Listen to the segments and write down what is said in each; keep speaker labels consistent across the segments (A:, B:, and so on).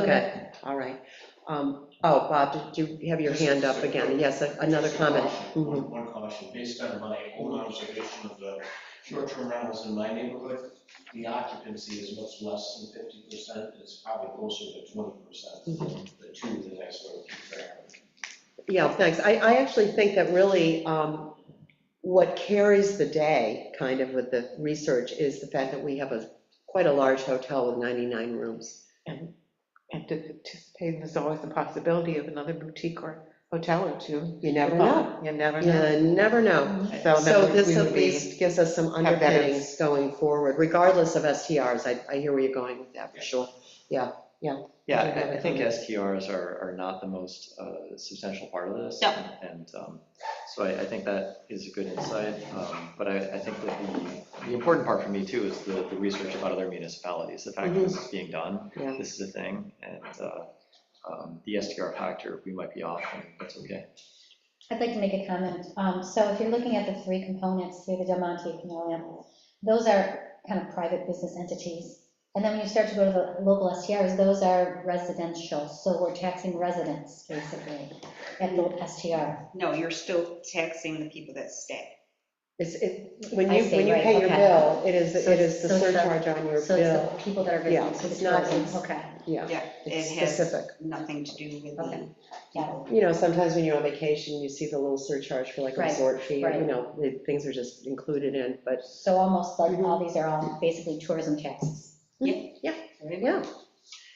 A: Okay, all right. Um, Oh, Bob, did you have your hand up again? Yes, a- another
B: Just a
A: comment.
B: caution, One one caution, based on my own observation of the short-term rentals in my neighborhood, the occupancy is much less than fifty percent, it's probably closer to twenty percent,
A: Mm-hmm.
B: the two that I sort of keep track of.
A: Yeah, thanks. I, I actually think that really um, what carries the day, kind of with the research, is the fact that we have a, quite a large hotel with 99 rooms.
C: And to participate, there's always the possibility of another boutique or hotel or two.
A: You never know.
C: You never know.
A: You never know. So
C: then we- we
A: this at
C: would be-
A: least gives us some
C: have better-
A: underpinnings going forward, regardless of STRs. I, I hear where you're going with that, for sure.
D: Yeah,
A: Yeah,
D: I- I think
A: definitely.
D: STRs are, are not the most uh, substantial part of this.
E: No.
D: And um, so I, I think that is a good insight, um, but I, I think that the, the important part for me too is the, the research about other municipalities, the fact that this is being done.
A: Yeah.
D: This is a thing, and uh, um, the STR factor, we might be off, and that's okay.
E: I'd like to make a comment. Um, So if you're looking at the three components here, the Del Monte, Canal those are kind of private business entities. And then when you start to go to the local STRs, those are residential, so we're taxing residents, basically, at the STR.
F: No, you're still taxing the people that stay.
A: It's, it, when
E: I
A: you,
E: see,
A: when you
E: right,
A: pay your
E: okay.
A: bill, it is,
E: So
A: it is the
E: it's- so it's the-
A: surcharge on your
E: So it's
A: bill.
E: the people that are
A: Yeah,
E: business, so
A: it's
E: the
A: not-
E: tourism, okay.
A: Yeah,
F: Yeah,
A: it's
F: it has-
A: specific.
F: Nothing to do with
E: Okay.
F: them.
E: Yeah.
A: You know, sometimes when you're on vacation, you see the little surcharge for like a
E: Right,
A: resort fee, or, you
E: right.
A: know, the- things are just included in, but,
E: So almost like all these are all basically tourism taxes.
A: yeah.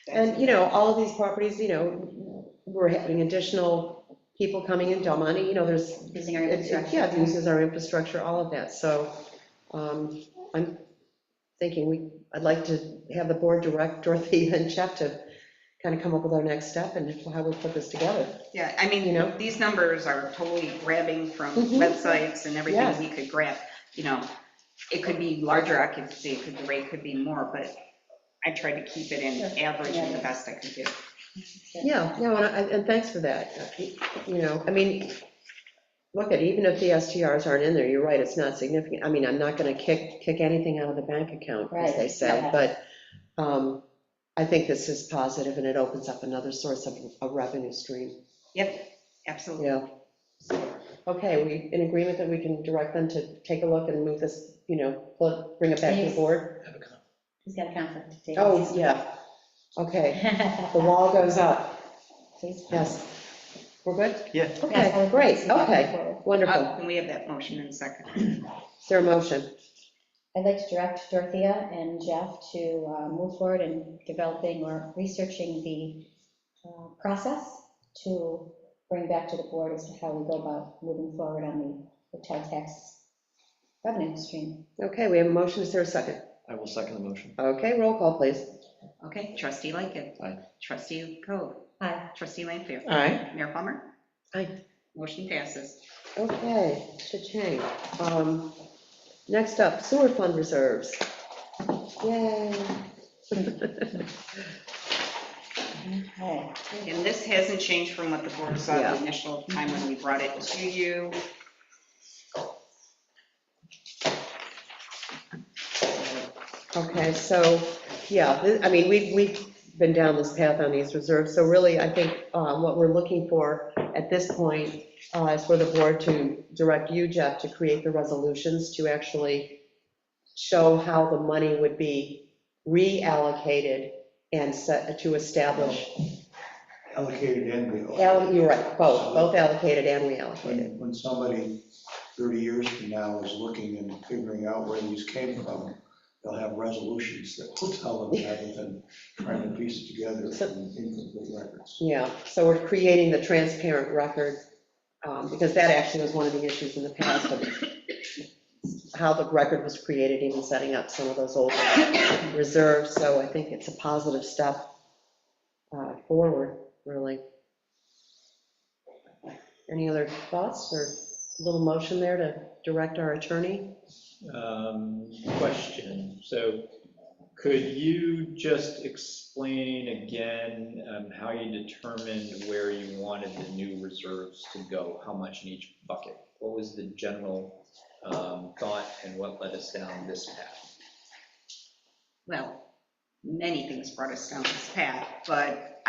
A: And, you know, all of these properties, you know, we're having additional people coming in, Del Monte, you know, there's,
E: Using our
A: it- it- yeah, it
E: infrastructure.
A: uses our infrastructure, all of that, so um, I'm thinking we, I'd like to have the board direct Dorothy and Jeff to kind of come up with our next step and how we put this together.
F: Yeah, I
A: You know?
F: mean, these numbers are totally grabbing from
A: Mhm.
F: websites and everything
A: Yes.
F: we could grab, you know. It could be larger occupancy, it could, the rate could be more, but I tried to keep it in average and the best I could do.
A: Yeah, no, and, I- and thanks for that. You know, I mean, look at, even if the STRs aren't in there, you're right, it's not significant. I mean, I'm not gonna kick, kick anything out of the bank account, as they
E: Right,
A: say,
E: yeah.
A: but um, I think this is positive and it opens up another source of a revenue stream,
F: Yep, absolutely.
A: yeah. Okay, we, in agreement that we can direct them to take a look and move this, you know, pull- bring it back to the
E: Yes.
A: board?
E: He's got a conflict. David.
A: Oh, yeah, okay, the wall goes up,
E: Please.
A: yes. We're good?
D: Yeah.
E: Yes,
A: Okay,
E: I would like to
A: great,
E: see that
A: okay,
E: before.
A: wonderful.
F: Uh, Can we have that motion in a second?
A: Is there a motion?
E: I'd like to direct Dorothea and Jeff to uh, move forward in developing or researching the uh, process to bring back to the board as to how we go about moving forward on the hotel tax revenue stream.
A: Okay, we have a motion, is there a second?
D: I will second the motion.
A: Okay, roll call, please.
F: Okay, trustee Lightgev.
D: Aye.
F: Trustee Coe.
E: Aye.
F: Trustee Lanfair.
C: All right,
F: Mayor Palmer.
A: Aye.
F: Motion passes.
A: Okay, cha-ching. Um, Next up, sewer fund reserves. Yay.
E: Okay.
F: And this hasn't changed from what the board saw
A: Yeah.
F: the initial time when we brought it to you.
A: Okay, so, yeah, thi- I mean, we've, we've been down this path on these reserves, so really, I think uh, what we're looking for at this point uh, is for the board to direct you, Jeff, to create the resolutions to actually show how the money would be reallocated and set, to establish
G: allocated and
A: Allo-
G: reallocated.
A: You're right, both, both allocated and reallocated.
G: When when somebody 30 years from now is looking and figuring out where these came from, they'll have resolutions that will tell them rather than trying to piece it together from incomplete records.
A: Yeah, so we're creating the transparent record, um, because that actually was one of the issues in the past of how the record was created, even setting up some of those old reserves, so I think it's a positive step uh, forward, really. Any other thoughts or little motion there to direct our attorney?
H: Um, Question, so could you just explain again um, how you determined where you wanted the new reserves to go? How much in each bucket? What was the general um, thought and what led us down this path?
F: Well, many things brought us down this path, but